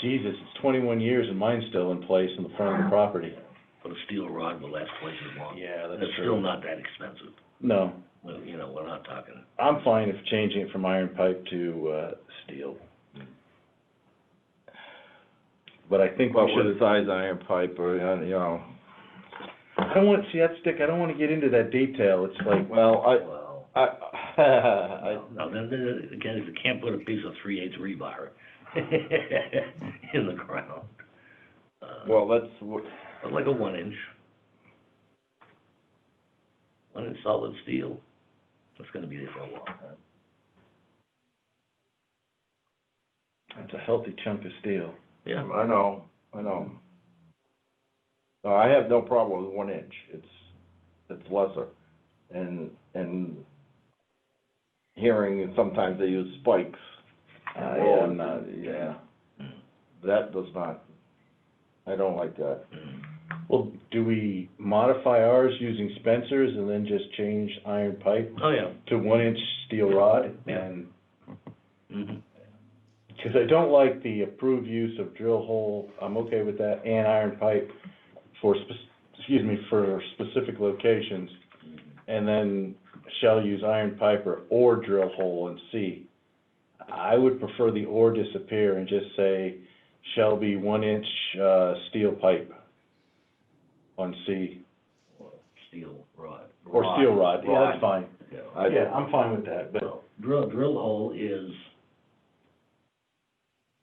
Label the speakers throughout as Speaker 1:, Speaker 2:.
Speaker 1: Jesus, it's twenty-one years and mine's still in place in the front of the property.
Speaker 2: But a steel rod will last twice as long.
Speaker 1: Yeah,
Speaker 2: It's still not that expensive,
Speaker 1: No,
Speaker 2: Well, you know, we're not talking,
Speaker 1: I'm fine if changing it from iron pipe to, uh, steel. But I think
Speaker 3: Well,
Speaker 1: we
Speaker 3: with
Speaker 1: should,
Speaker 3: a size iron pipe or, uh, you know,
Speaker 1: I don't want, see, that's Dick, I don't wanna get into that detail, it's like,
Speaker 3: well,
Speaker 2: well,
Speaker 3: I, I,
Speaker 2: no, then, then, again, if you can't put a piece of three eighths rebar in the ground.
Speaker 3: I,
Speaker 2: uh,
Speaker 3: well, let's, w-
Speaker 2: but like a one inch. One inch solid steel, that's gonna be there for a long time.
Speaker 1: that's a healthy chunk of steel.
Speaker 2: Yeah,
Speaker 3: I know, I know. No, I have no problem with one inch, it's, it's lesser, and, and hearing is sometimes they use spikes, Oh,
Speaker 1: I
Speaker 3: Well,
Speaker 1: am not, Uh, yeah.
Speaker 3: that does not, I don't like that.
Speaker 2: Mm-hmm.
Speaker 1: Well, do we modify ours using Spencer's and then just change iron pipe
Speaker 2: oh, yeah,
Speaker 1: to one-inch steel rod?
Speaker 2: Yeah.
Speaker 1: And,
Speaker 2: mhm,
Speaker 1: cause I don't like the approved use of drill hole, I'm okay with that, and iron pipe for spec- excuse me, for specific locations.
Speaker 2: Mm-hmm.
Speaker 1: And then shall use iron pipe or, or drill hole in C. I would prefer the or disappear and just say shall be one-inch, uh, steel pipe on C.
Speaker 2: or steel rod.
Speaker 1: Or steel rod, yeah,
Speaker 3: Rod.
Speaker 1: that's fine.
Speaker 2: you know.
Speaker 3: I-
Speaker 1: Yeah, I'm fine with that, but,
Speaker 2: Well, drill, drill hole is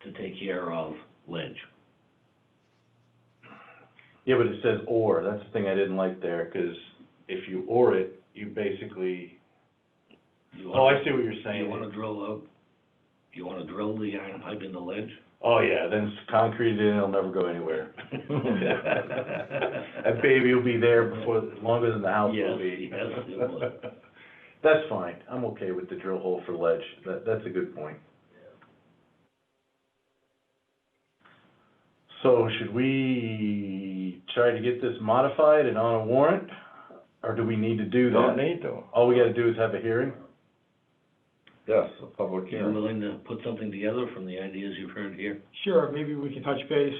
Speaker 2: to take care of ledge.
Speaker 1: yeah, but it says or, that's the thing I didn't like there, 'cause if you or it, you basically,
Speaker 2: You
Speaker 1: oh,
Speaker 2: wanna-
Speaker 1: I see what you're
Speaker 2: You wanna
Speaker 1: saying.
Speaker 2: drill out, you wanna drill the iron pipe in the ledge?
Speaker 1: Oh, yeah, then it's concreted in, it'll never go anywhere. That baby will be there before, longer than the house will
Speaker 2: Yes,
Speaker 1: be.
Speaker 2: yes, it will.
Speaker 1: That's fine, I'm okay with the drill hole for ledge, that, that's a good point. So should we try to get this modified and on a warrant, or do we need to do
Speaker 3: You
Speaker 1: that?
Speaker 3: don't need to,
Speaker 1: All we gotta do is have a hearing?
Speaker 3: yes, a public
Speaker 2: You're
Speaker 3: hearing.
Speaker 2: willing to put something together from the ideas you've heard here?
Speaker 4: Sure, maybe we can touch base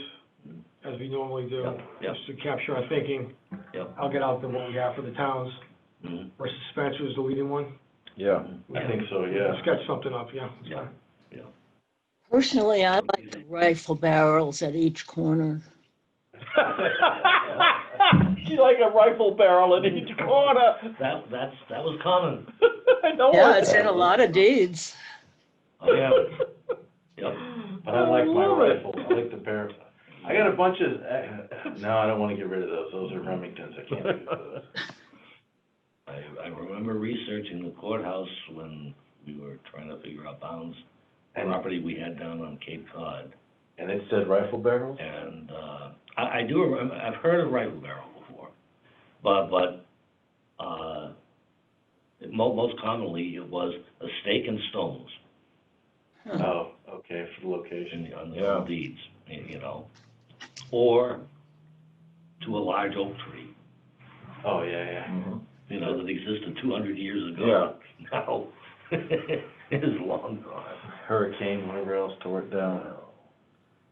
Speaker 4: as we normally do,
Speaker 2: Yep, yep.
Speaker 4: just to capture our thinking.
Speaker 2: Yep.
Speaker 4: I'll get out the what we have for the towns,
Speaker 1: Mm-hmm.
Speaker 2: Mhm.
Speaker 4: versus Spencer's the leading one.
Speaker 3: Yeah,
Speaker 1: I think so,
Speaker 4: We
Speaker 1: yeah.
Speaker 4: can Sketch something up, yeah.
Speaker 2: Yeah.
Speaker 5: Personally, I like the rifle barrels at each corner.
Speaker 3: She like a rifle barrel in each corner.
Speaker 2: That, that's, that was common.
Speaker 3: uh, I know
Speaker 5: Yeah, it's in Oh, a lot of deeds.
Speaker 2: Oh, yeah, yep.
Speaker 1: But I like my
Speaker 3: I love it.
Speaker 1: rifle, I like the barrel. I got a bunch of, eh, no, I don't wanna get rid of those, those are Remingtons, I can't use those.
Speaker 2: I, I remember researching the courthouse when we were trying to figure out bounds,
Speaker 1: And,
Speaker 2: property we had down on Cape Cod.
Speaker 1: and it said rifle barrels?
Speaker 2: And, uh, I, I do, remem- I've heard of rifle barrel before, but, but, uh, mo- most commonly it was a stake and stones
Speaker 1: Oh, okay, for the
Speaker 2: in
Speaker 1: location.
Speaker 2: the, on
Speaker 3: Yeah.
Speaker 2: the deeds, y- you know? Or to a large oak tree,
Speaker 1: Oh, yeah, yeah.
Speaker 3: Mhm.
Speaker 2: you know, that existed two hundred years ago. Now, it is long gone.
Speaker 1: Hurricane, whatever else tore it down.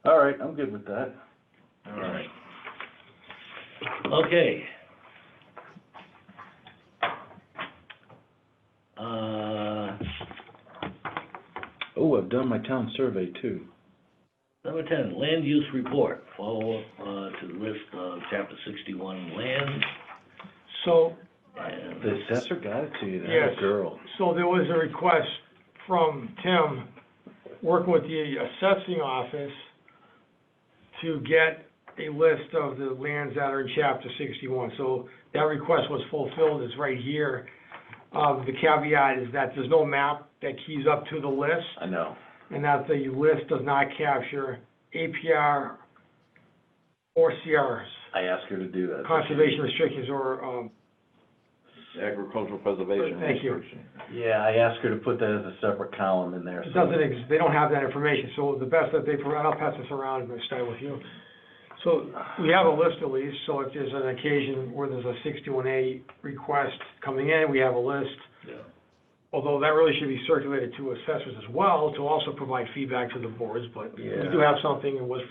Speaker 1: All right, I'm good with that.
Speaker 2: All right. Okay. Uh,
Speaker 1: Oh, I've done my town survey too.
Speaker 2: number ten, land use report, follow-up, uh, to the list of chapter sixty-one land
Speaker 4: So,
Speaker 2: and.
Speaker 1: The assessor got it to you, that
Speaker 4: Yes.
Speaker 1: girl.
Speaker 4: so there was a request from Tim, working with the assessing office, to get a list of the lands that are in chapter sixty-one. So that request was fulfilled, it's right here. Uh, the caveat is that there's no map that keys up to the list.
Speaker 1: I know.
Speaker 4: and that the list does not capture APR or CRs,
Speaker 1: I asked her to do that.
Speaker 4: conservation restrictions or, um,
Speaker 3: Agricultural preservation.
Speaker 4: Thank you.
Speaker 3: restriction.
Speaker 1: Yeah, I asked her to put that as a separate column in there.
Speaker 4: it
Speaker 1: so-
Speaker 4: doesn't ex, they don't have that information, so the best that they provide, I'll pass this around and start with you. So we have a list at least, so if there's an occasion where there's a sixty-one A request coming in, we have a list.
Speaker 2: Yeah.
Speaker 4: although that really should be circulated to assessors as well, to also provide feedback to the boards, but we do have something that was